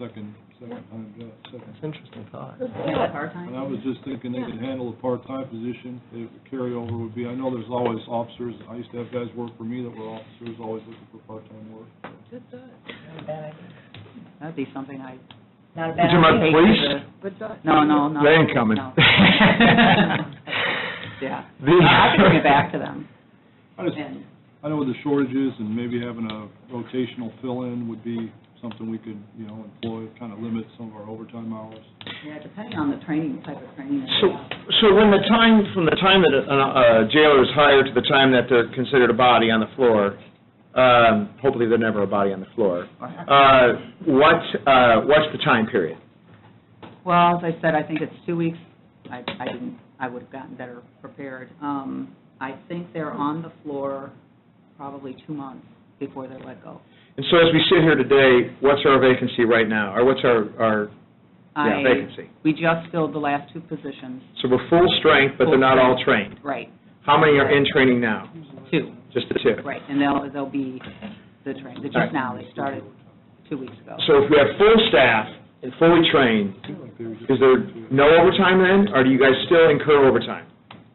second, second time job, second. Interesting thought. And I was just thinking they could handle a part-time position, the carryover would be, I know there's always officers, I used to have guys work for me that were officers, always looking for part-time work. That'd be something I, Not a bad Did you mind, idea. please? no, no, no. They ain't coming. no. The- Yeah. I could bring it back to them. I just, And I know what the shortage is, and maybe having a rotational fill-in would be something we could, you know, employ, kind of limit some of our overtime hours. Yeah, depending on the training, type of training. So, so when the time, from the time that a a jailer is hired to the time that they're considered a body on the floor, um, hopefully they're never a body on the floor, uh, what, uh, what's the time period? Well, as I said, I think it's two weeks. I, I didn't, I would have gotten better prepared. Um, I think they're on the floor probably two months before they're let go. And so as we sit here today, what's our vacancy right now, or what's our, our, yeah, I- vacancy? We just filled the last two positions. So we're full strength, but they're not all trained. Right, How many are in training now? two, Just the two? right, and they'll, they'll be the train, they're just now, they started two weeks ago. So if we have full staff and fully trained, is there no overtime then, or do you guys still incur overtime?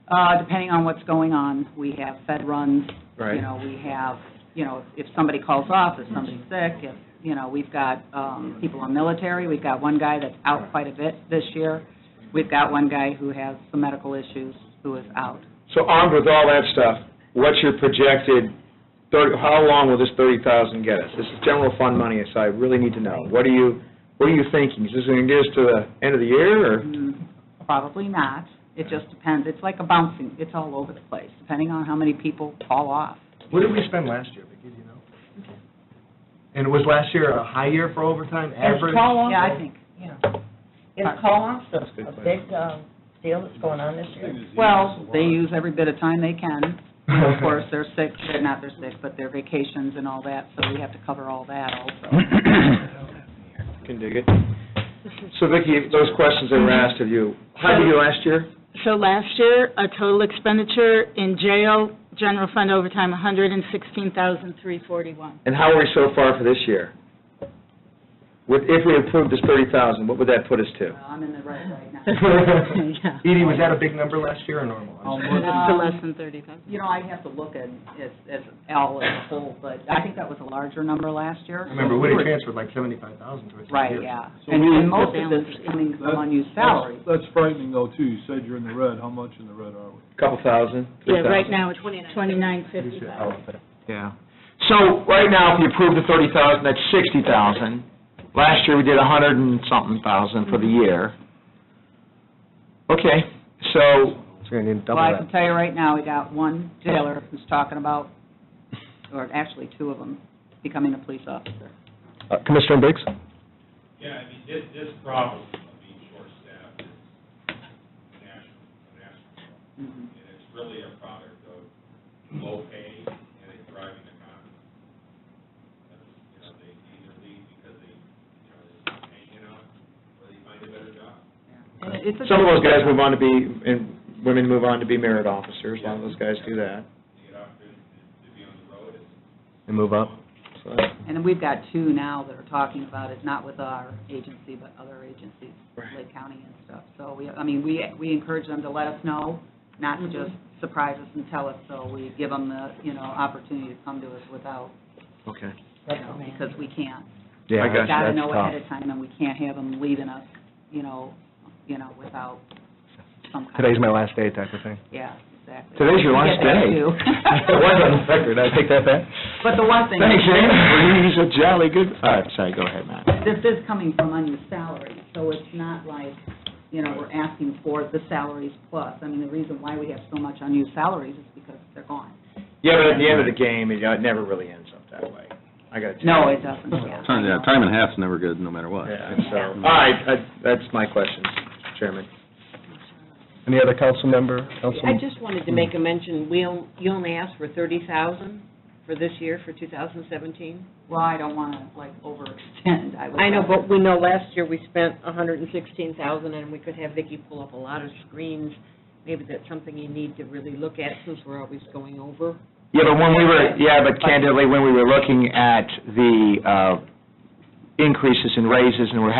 Uh, depending on what's going on, we have fed runs, Right. you know, we have, you know, if somebody calls off, if somebody's sick, if, you know, we've got, um, people on military, we've got one guy that's out quite a bit this year, we've got one guy who has some medical issues who is out. So armed with all that stuff, what's your projected, 30 how long will this 30,000 get us? This is general fund money, so I really need to know. What are you, what are you thinking? Is this going to get us to the end of the year, or? Hmm, Probably not, it just depends, it's like a bouncing, it's all over the place, depending on how many people call off. What did we spend last year, Vicki, do you know? And was last year a high year for overtime, It's average? call Yeah, I off, think, yeah. It's call off, a a big um, deal that's going on this year. well, they use every bit of time they can, of course, they're sick, they're not, they're sick, but their vacations and all that, so we have to cover all that also. Can dig it. So Vicki, those questions that were asked of you, how did you do last year? So last year, a total expenditure in jail, general fund overtime, $116,341. And how are we so far for this year? With, if we approve this 30,000, what would that put us to? Well, I'm in the red right now. Yeah. Um, Edie, was that a big number last year or normal? How I'm sorry. much, To less than 30,000. You know, I'd have to look at, as, as all as a whole, but I think that was a larger number last year. Remember, Woody transferred like seventy-five thousand to us. Right, yeah. So And we- and most of this is coming from That- unused salary. that's frightening though, too, you said you're in the red, how much in the red are we? Couple thousand, Yeah, three thousand? right now, it's Oh, 2955. Yeah. So, right now, if you approve the thirty thousand, that's sixty thousand. Last year, we did a hundred and something thousand for the year. Okay, so, So you're gonna need Well, I can tell you right now, we got one jailer who's talking about, or actually two of them, becoming a police officer. that. Uh, Commissioner Biggs? Yeah, I mean, this, this problem of being short-staffed is national, a national problem. Mhm. And it's really a product of low pay and a thriving economy. That's, You know, they either leave because they, you know, they're hanging out, or they find a better job. And it- it's a- some of those guys move on to be, and women move on to be merit officers, a lot of those guys do that. They get out there to to be on the road, it's And move up. So that's- And then we've got two now that are talking about it, not with our agency, but other agencies, Right. Lake County and stuff. So we, I mean, we, we encourage them to let us know, not to just surprise us and tell us, so we give them the, you know, opportunity to come to us without, Okay. you know, because we can't. Yeah, I got that's We've you. tough. Gotta know ahead of time, and we can't have them leaving us, you know, you know, without some kind of. Today's my last day type of thing. Yeah, exactly. Today's your We last get that day. too. It was on the record, I take that back. But the one thing. Thanks, Ann, he's a jolly good, all right, sorry, go ahead, Matt. this is coming from unused salary, so it's not like, you know, we're asking for the salaries plus. I mean, the reason why we have so much unused salaries is because they're gone. Yeah, but at the end of the game, it it never really ends up that way. I got to No, it doesn't, yeah. Time, yeah, time and a half's never good, no matter what. Yeah, so, all right, that- that's my question, Chairman. Any other council member, I councilman? just wanted to make a mention, we, on- you only asked for thirty thousand for this year, for two thousand seventeen? Well, I don't want to, like, overextend. would- I know, but we know last year we spent a hundred and sixteen thousand, and we could have Vicki pull up a lot of screens. Maybe that's something you need to really look at, since we're always going over. Yeah, but when we were, yeah, but candidly, when we were looking at the, uh, increases in raises, and we're